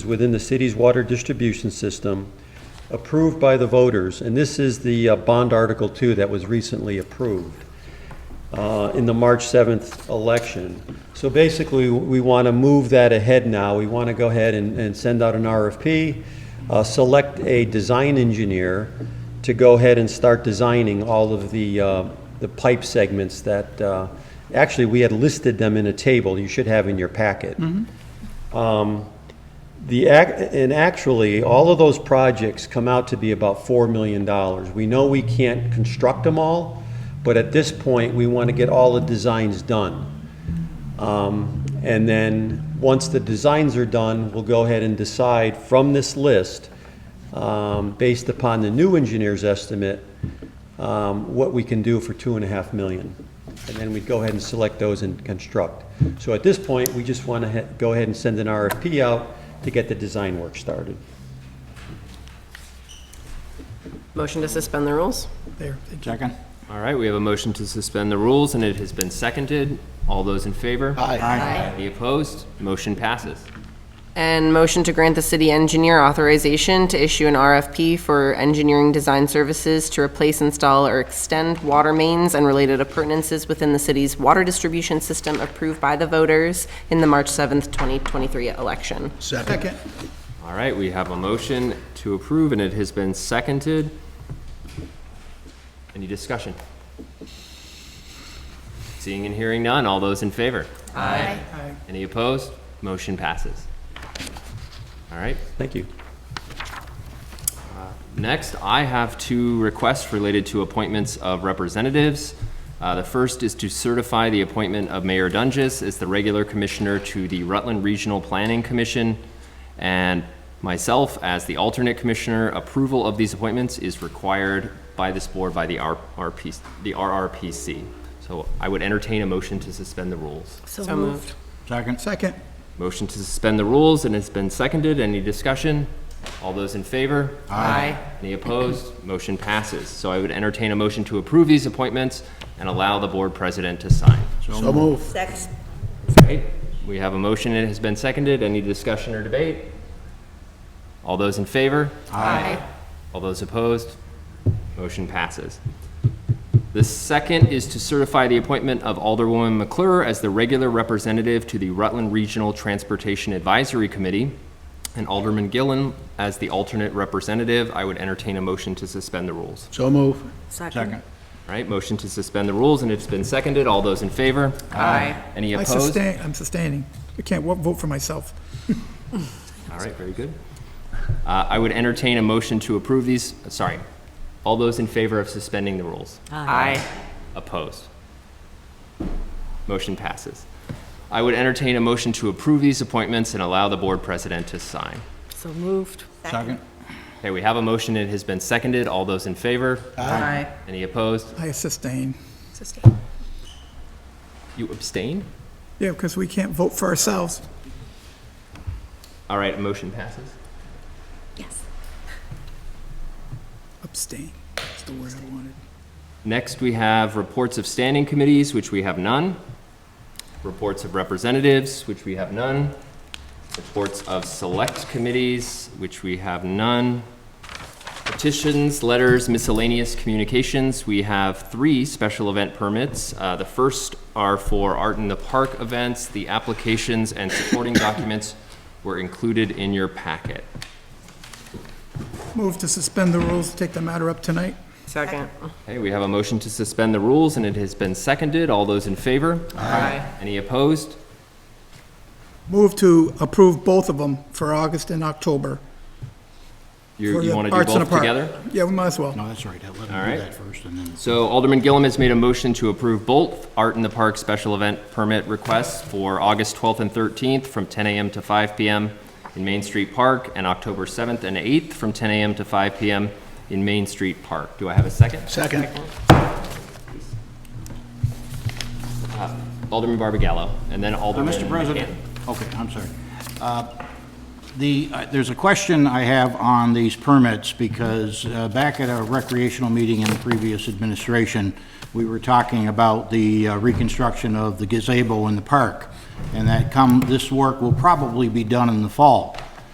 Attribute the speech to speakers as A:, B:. A: within the city's water distribution system approved by the voters, and this is the uh, bond Article 2 that was recently approved uh, in the March 7th election. So basically, we want to move that ahead now. We want to go ahead and, and send out an RFP, uh, select a design engineer to go ahead and start designing all of the, uh, the pipe segments that, uh, actually, we had listed them in a table you should have in your packet. Um, The, ac- and actually, all of those projects come out to be about $4 million. We know we can't construct them all, but at this point, we want to get all the designs done. Um, And then, once the designs are done, we'll go ahead and decide from this list, um, based upon the new engineer's estimate, um, what we can do for two and a half million. And then we'd go ahead and select those and construct. So at this point, we just want to go ahead and send an RFP out to get the design work started.
B: Motion to suspend the rules?
C: There, thank you.
D: Second.
E: All right, we have a motion to suspend the rules, and it has been seconded. All those in favor?
D: Aye.
E: Any opposed? Motion passes.
B: And motion to grant the city engineer authorization to issue an RFP for engineering design services to replace, install, or extend water mains and related appurtenances within the city's water distribution system approved by the voters in the March 7th, 2023 election.
C: Second.
E: All right, we have a motion to approve, and it has been seconded. Any discussion? Seeing and hearing none, all those in favor? Aye.
C: Aye.
E: Any opposed? Motion passes. All right,
A: Thank you.
E: Next, I have two requests related to appointments of representatives. Uh, The first is to certify the appointment of Mayor Dungus as the regular commissioner to the Rutland Regional Planning Commission, and myself as the alternate commissioner. Approval of these appointments is required by this board by the R- RP the RRPC. So I would entertain a motion to suspend the rules.
B: So moved.
D: Second.
C: Second.
E: Motion to suspend the rules, and it's been seconded. Any discussion? All those in favor?
B: Aye.
E: Any opposed? Motion passes. So I would entertain a motion to approve these appointments and allow the board president to sign.
D: So move.
F: Second.
E: Okay, We have a motion, it has been seconded. Any discussion or debate? All those in favor?
B: Aye.
E: All those opposed? Motion passes. The second is to certify the appointment of Alderwoman McClure as the regular representative to the Rutland Regional Transportation Advisory Committee and Alderman Gillen as the alternate representative. I would entertain a motion to suspend the rules.
D: So move.
F: Second.
D: Second.
E: All right, motion to suspend the rules, and it's been seconded. All those in favor?
B: Aye.
E: Any
C: I
E: opposed?
C: sustain, I'm sustaining. I can't wo- vote for myself.
E: All right, very good. Uh, I would entertain a motion to approve these, sorry, all those in favor of suspending the rules?
B: Aye.
E: Opposed? Motion passes. I would entertain a motion to approve these appointments and allow the board president to sign.
B: So moved.
D: Second.
E: Okay, we have a motion, it has been seconded. All those in favor?
B: Aye.
E: Any opposed?
C: I sustain.
E: You abstain?
C: Yeah, because we can't vote for ourselves.
E: All right, motion passes.
F: Yes.
C: Abstain. That's the word I wanted.
E: Next, we have reports of standing committees, which we have none. Reports of representatives, which we have none. Reports of select committees, which we have none. Petitions, letters, miscellaneous communications, we have three special event permits. Uh, The first are for Art in the Park events. The applications and supporting documents were included in your packet.
C: Move to suspend the rules, take the matter up tonight.
B: Second.
E: Okay, we have a motion to suspend the rules, and it has been seconded. All those in favor?
B: Aye.
E: Any opposed?
C: Move to approve both of them for August and October.
E: You,
C: for
E: you
C: the
E: want to do
C: Arts in a
E: both
C: Park.
E: together?
C: Yeah, we might as well.
D: No, that's all right. I'll Let
E: All
D: him
E: right.
D: do that first and then.
E: So Alderman Gillum has made a motion to approve both Art in the Park special event permit requests for August 12th and 13th from 10 a.m. to 5 p.m. in Main Street Park and October 7th and 8th from 10 a.m. to 5 p.m. in Main Street Park. Do I have a second? Uh,
D: Second.
E: Alderman Barbagallo and then
D: Uh,
E: Alderman.
D: Mr. President,
E: McCann.
D: okay, I'm sorry. Uh, The, uh, there's a question I have on these permits, because uh, back at a recreational meeting in the previous administration, we were talking about the uh, reconstruction of the gazebo in the park, and that come, this work will probably be done in the fall.